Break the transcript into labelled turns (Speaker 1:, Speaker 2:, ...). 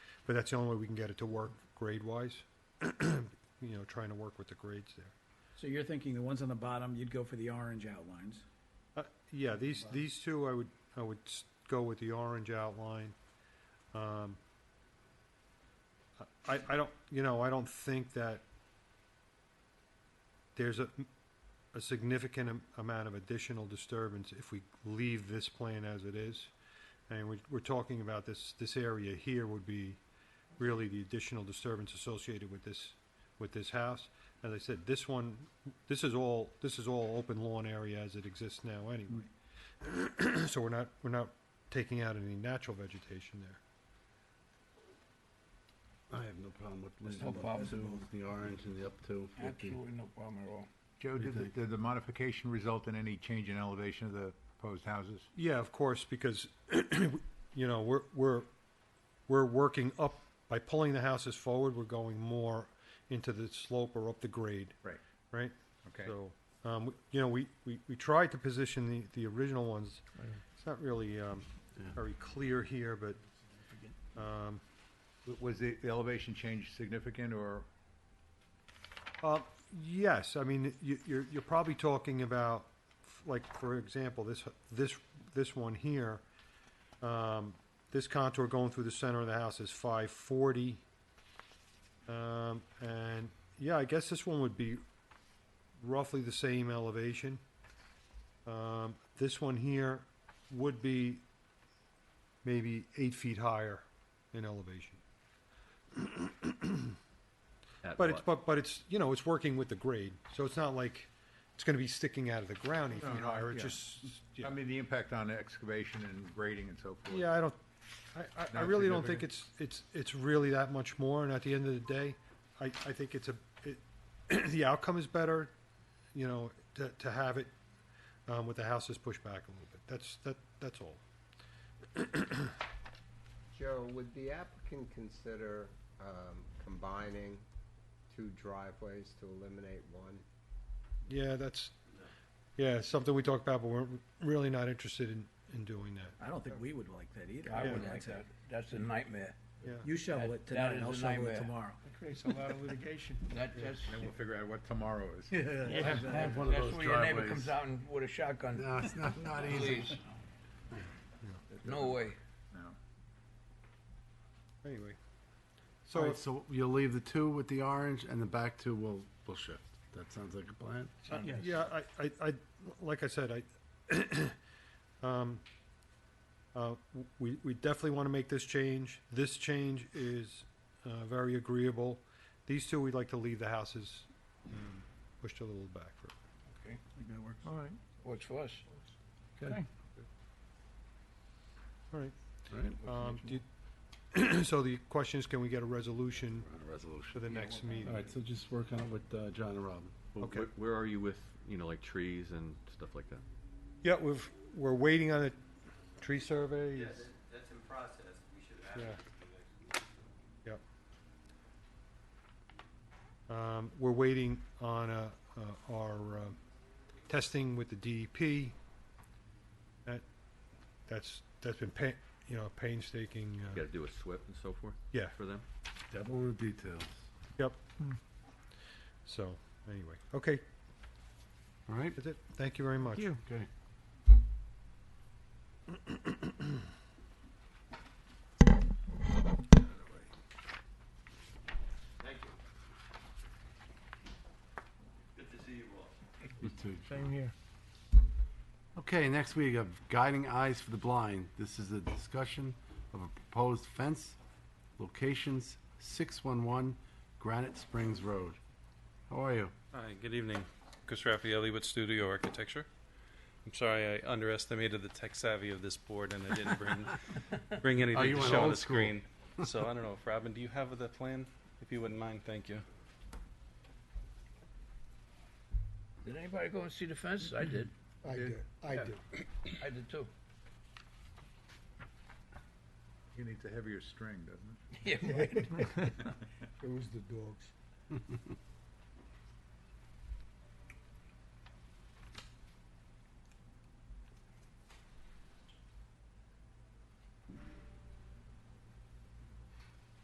Speaker 1: But that's the only way we can get it to work grade-wise, you know, trying to work with the grades there.
Speaker 2: So you're thinking the ones on the bottom, you'd go for the orange outlines.
Speaker 1: Uh, Yeah, these, these two, I would, I would s- go with the orange outline. Um, I, I don't, you know, I don't think that there's a, a significant am- amount of additional disturbance if we leave this plan as it is. And we, we're talking about this, this area here would be really the additional disturbance associated with this, with this house. As I said, this one, this is all, this is all open lawn area as it exists now anyway. So we're not, we're not taking out any natural vegetation there.
Speaker 3: I have no problem with
Speaker 2: There's
Speaker 3: leaving
Speaker 2: no
Speaker 3: up
Speaker 2: problem.
Speaker 3: to the orange and the up to. with the-
Speaker 4: Absolutely no problem at all.
Speaker 5: Joe, did the, did the modification result in any change in elevation of the proposed houses?
Speaker 1: Yeah, of course, because, you know, we're, we're, we're working up, by pulling the houses forward, we're going more into the slope or up the grade,
Speaker 5: Right.
Speaker 1: right?
Speaker 5: Okay.
Speaker 1: So, um, we- you know, we, we, we tried to position the, the original ones. It's not really, um,
Speaker 3: Yeah.
Speaker 1: very clear here, but, um,
Speaker 5: W- Was the the elevation change significant or,
Speaker 1: Uh, Yes, I mean, you- you're, you're probably talking about, like, for example, this, this, this one here, um, this contour going through the center of the house is five forty. Um, and, yeah, I guess this one would be roughly the same elevation. Um, this one here would be maybe eight feet higher in elevation. But it's, but, but it's, you know, it's working with the grade, so it's not like it's gonna be sticking out of the ground eight
Speaker 5: No,
Speaker 1: feet
Speaker 5: no,
Speaker 1: higher, it's
Speaker 5: yeah.
Speaker 1: just, yeah.
Speaker 5: I mean, the impact on excavation and grading and so forth?
Speaker 1: Yeah, I don't, I, I, I
Speaker 5: Not
Speaker 1: really don't think it's, it's, it's really that much more, and at the end of the day, I, I think it's a, it, the outcome is better, you know, to, to have it, um, with the houses pushed back a little bit, that's, that, that's all.
Speaker 6: Joe, would the applicant consider um, combining two driveways to eliminate one?
Speaker 1: Yeah, that's, yeah, it's something we talked about, but we're really not interested in, in doing that,
Speaker 2: I don't think we would like that either.
Speaker 4: I
Speaker 1: Yeah.
Speaker 4: wouldn't like that. That's a nightmare.
Speaker 1: yeah.
Speaker 2: You shovel it
Speaker 4: That- that
Speaker 2: tonight,
Speaker 4: is
Speaker 2: I'll
Speaker 4: a
Speaker 2: shovel it
Speaker 4: nightmare.
Speaker 2: tomorrow.
Speaker 7: It creates a lot of litigation.
Speaker 4: That, that's.
Speaker 5: And then we'll figure out what tomorrow is.
Speaker 4: that's-
Speaker 7: have- I have one of
Speaker 4: that's
Speaker 7: those
Speaker 4: where your neighbor
Speaker 7: driveways.
Speaker 4: comes out and with a shotgun.
Speaker 3: No, it's not, not easy.
Speaker 4: Please. No way.
Speaker 5: No.
Speaker 1: Anyway.
Speaker 3: All
Speaker 1: So,
Speaker 3: right, so you'll leave the two with the orange and the back two will, will shift. That sounds like a plan.
Speaker 1: yeah, I, I, I, like I said, I, um, uh, we, we definitely want to make this change. This change is, uh, very agreeable. These two, we'd like to leave the houses,
Speaker 3: Hmm.
Speaker 1: um, pushed a little back for.
Speaker 2: I think that works.
Speaker 7: All right.
Speaker 4: Works for us.
Speaker 7: Okay.
Speaker 1: All right,
Speaker 3: All right,
Speaker 1: um, do you, so the question is, can we get a resolution
Speaker 3: we're on a
Speaker 1: for
Speaker 3: resolution.
Speaker 1: the next
Speaker 3: All
Speaker 1: meeting?
Speaker 3: right, so just work on it with uh, John and Robin.
Speaker 8: Well,
Speaker 1: Okay.
Speaker 8: wh- Where are you with, you know, like trees and stuff like that?
Speaker 1: Yeah, we've, we're waiting on a tree survey.
Speaker 9: Yeah,
Speaker 1: It's-
Speaker 9: that, that's in process, we should have.
Speaker 1: Yeah.
Speaker 9: it for the next meeting.
Speaker 1: Yep. Um, we're waiting on, uh, uh, our, um, testing with the DEP. That, that's, that's been pa- you know, painstaking,
Speaker 8: You
Speaker 1: uh,
Speaker 8: gotta do a SWIP and so forth
Speaker 1: yeah,
Speaker 8: for them?
Speaker 3: Devil in the details.
Speaker 1: yep. So, anyway, okay,
Speaker 3: All right?
Speaker 1: that's it. Thank you very much.
Speaker 3: Okay.
Speaker 9: Thank you. Good to see you all.
Speaker 3: You too.
Speaker 7: Same here.
Speaker 3: Okay, next we have Guiding Eyes for the Blind. This is a discussion of a proposed fence, locations 611 Granite Springs Road. How are you?
Speaker 10: Hi, good evening. Chris Raffaelli with Studio Architecture. I'm sorry I underestimated the tech savvy of this board and I didn't bring bring
Speaker 3: Oh,
Speaker 10: anything
Speaker 3: you
Speaker 10: to
Speaker 3: went
Speaker 10: show on
Speaker 3: old
Speaker 10: the
Speaker 3: school.
Speaker 10: screen. So I don't know if Robin, do you have the plan? If you wouldn't mind, thank you.
Speaker 4: Did anybody go and see the fence? I did.
Speaker 7: I do, I do.
Speaker 4: I did too.
Speaker 5: It needs a heavier string, doesn't it?
Speaker 4: Yeah, right.
Speaker 7: It was the dogs.